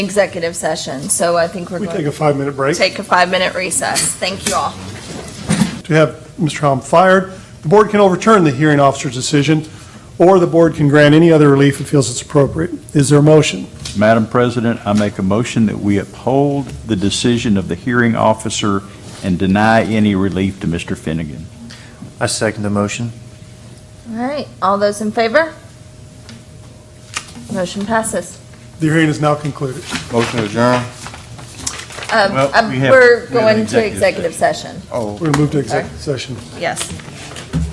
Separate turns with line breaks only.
executive session, so I think we're
We take
going
a five-minute break.
to take a five-minute recess. Thank you all.
to have Mr. Hom fired. The board can overturn the hearing officer's decision, or the board can grant any other relief it feels it's appropriate. Is there a motion?
Madam President, I make a motion that we uphold the decision of the hearing officer and deny any relief to Mr. Finnegan.
I second the motion.
All right, all those in favor? Motion passes.
The hearing is now concluded.
Motion to adjourn.
Um,
Well,
um,
we have-
We're
we have an
going to
executive
executive session,
Oh.
We're going to move to executive session.
yes.